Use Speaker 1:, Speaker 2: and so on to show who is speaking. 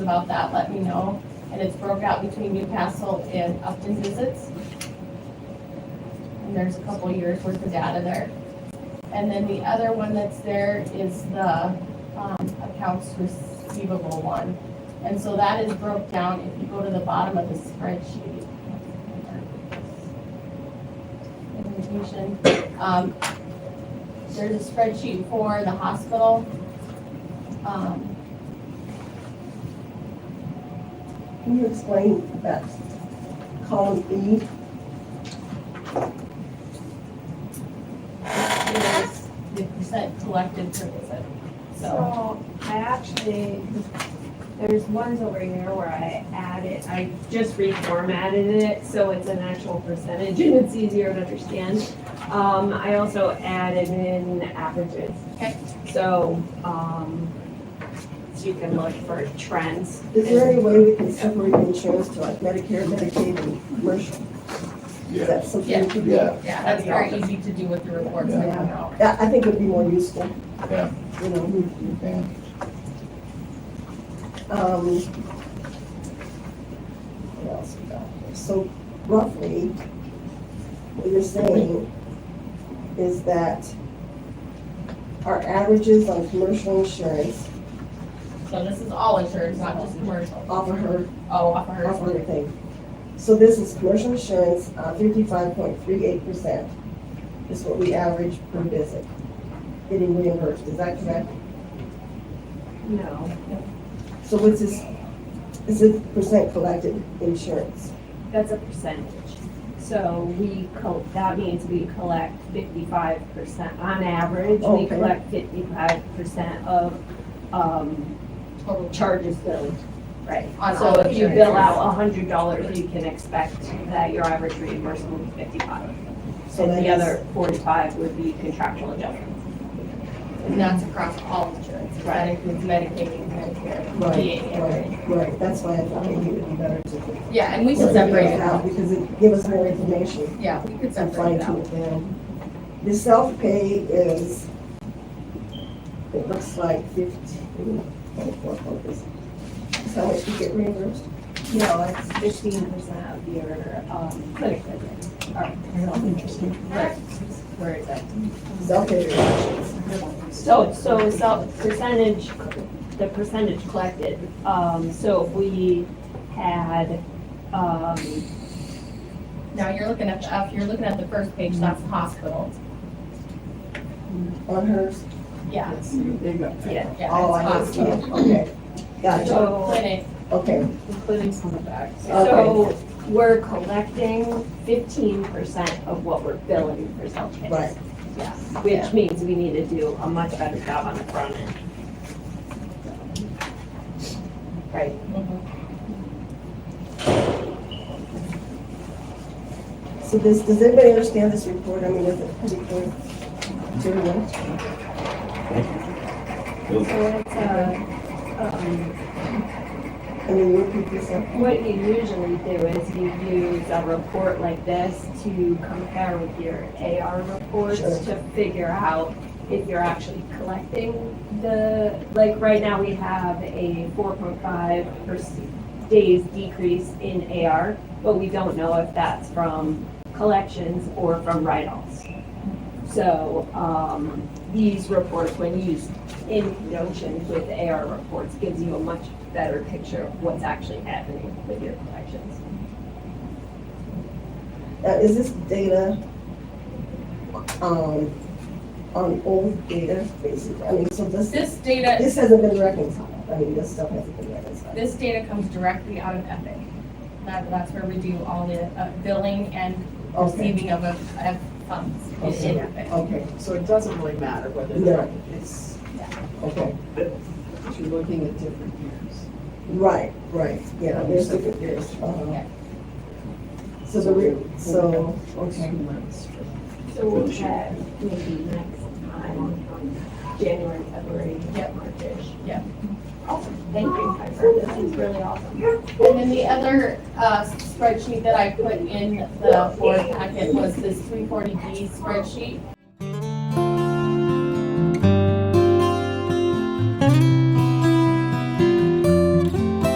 Speaker 1: about that, let me know. And it's broke out between Newcastle and Upton visits. And there's a couple years worth of data there. And then the other one that's there is the, um, accounts receivable one. And so that is broke down, if you go to the bottom of the spreadsheet. Presentation, um, there's a spreadsheet for the hospital. Um,
Speaker 2: Can you explain that column B?
Speaker 1: is the percent collected per visit. So,
Speaker 3: So I actually, there's ones over here where I added, I just reformatted it, so it's an actual percentage and it's easier to understand. Um, I also added in averages.
Speaker 1: Okay.
Speaker 3: So, um, so you can look for trends.
Speaker 2: Is there any way we can separate insurance to like Medicare, Medicaid, and commercial? Is
Speaker 4: Yeah,
Speaker 2: that something
Speaker 1: Yeah.
Speaker 2: we could do?
Speaker 4: yeah,
Speaker 1: yeah, that's very easy to do with the reports that come out.
Speaker 2: Yeah, I think it would be more useful,
Speaker 4: yeah,
Speaker 2: you know.
Speaker 4: you can.
Speaker 2: Um, What else we got here? So roughly, what you're saying is that our averages on commercial insurance
Speaker 1: So this is all insurance, not just commercial.
Speaker 2: offer her
Speaker 1: Oh, off of
Speaker 2: That's
Speaker 1: hers.
Speaker 2: what I think. So this is commercial insurance, uh, fifty-five point three eight percent is what we average per visit getting reimbursed, is that correct?
Speaker 3: No.
Speaker 2: So what's this, is it percent collected insurance?
Speaker 3: That's a percentage. So we, col- that means we collect fifty-five percent, on average, we
Speaker 2: Okay.
Speaker 3: collect fifty-five percent of, um,
Speaker 1: Total
Speaker 3: charges billed. Right.
Speaker 1: On
Speaker 3: So
Speaker 1: all
Speaker 3: if you
Speaker 1: insurances.
Speaker 3: bill out a hundred dollars, you can expect that your average reimbursement is fifty-five.
Speaker 2: So
Speaker 3: And
Speaker 2: that
Speaker 3: the
Speaker 2: is-
Speaker 3: other forty-five would be contractual adjustments.
Speaker 1: And that's across all insurance. That includes Medicaid, Medicare,
Speaker 2: Right,
Speaker 1: VA. everything.
Speaker 2: right, right, that's why I thought maybe it would be better to.
Speaker 1: Yeah, and we should separate it out.
Speaker 2: Because it gives us more information
Speaker 1: Yeah, we could
Speaker 2: and
Speaker 1: separate
Speaker 2: fine
Speaker 1: it
Speaker 2: tune
Speaker 1: out.
Speaker 2: it down. The self-pay is, it looks like fifteen, twenty-four, what is it? Is how much we get reimbursed?
Speaker 3: No, it's fifteen percent of your, um, clinic visit.
Speaker 1: Right.
Speaker 3: Where is that?
Speaker 2: Self-pay reimbursements.
Speaker 3: So, so, so percentage, the percentage collected, um, so if we had, um,
Speaker 1: Now, you're looking at, the if you're looking at the first page, that's hospital.
Speaker 2: on hers?
Speaker 1: Yeah,
Speaker 3: yeah,
Speaker 1: yeah, it's
Speaker 2: Oh, I see,
Speaker 1: hospital.
Speaker 2: okay. Gotcha,
Speaker 1: So clinic,
Speaker 2: okay,
Speaker 3: including some of that.
Speaker 2: Okay.
Speaker 3: So we're collecting fifteen percent of what we're billing for self-pay.
Speaker 2: right.
Speaker 3: Yeah, which means we need to do a much better job on the front end. Right,
Speaker 2: So this, does anybody understand this report? I mean, is it pretty clear? to everyone?
Speaker 3: so it's a, um,
Speaker 2: I mean, you repeat this up?
Speaker 3: What you usually do is you use a report like this to compare with your AR reports
Speaker 2: Sure.
Speaker 3: to figure out if you're actually collecting the, like, right now we have a four point five days decrease in AR, but we don't know if that's from collections or from write-offs. So, um, these reports, when used in conjunction with the AR reports, gives you a much better picture of what's actually happening with your collections.
Speaker 2: Now, uh, is this data, um, on old data, basically? I mean, so this,
Speaker 1: This data,
Speaker 2: this hasn't been reconciled, I mean, this stuff hasn't been reconciled.
Speaker 1: this data comes directly out of Epic. That, that's where we do all the uh, billing and
Speaker 2: Okay,
Speaker 1: receiving of, of funds.
Speaker 2: Okay. okay,
Speaker 5: So it doesn't really matter whether
Speaker 2: No.
Speaker 5: it's,
Speaker 2: okay,
Speaker 5: you're looking at different years.
Speaker 2: right, right, yeah, there's different years. uh-huh. So the, re- so, okay.
Speaker 5: Two months.
Speaker 3: So we'll check maybe next time, on January, February,
Speaker 1: Yep.
Speaker 3: March-ish.
Speaker 1: Yep.
Speaker 3: Awesome, thank you, Piper, this is really awesome.
Speaker 1: And then the other uh, spreadsheet that I put in the board packet was this three forty B spreadsheet.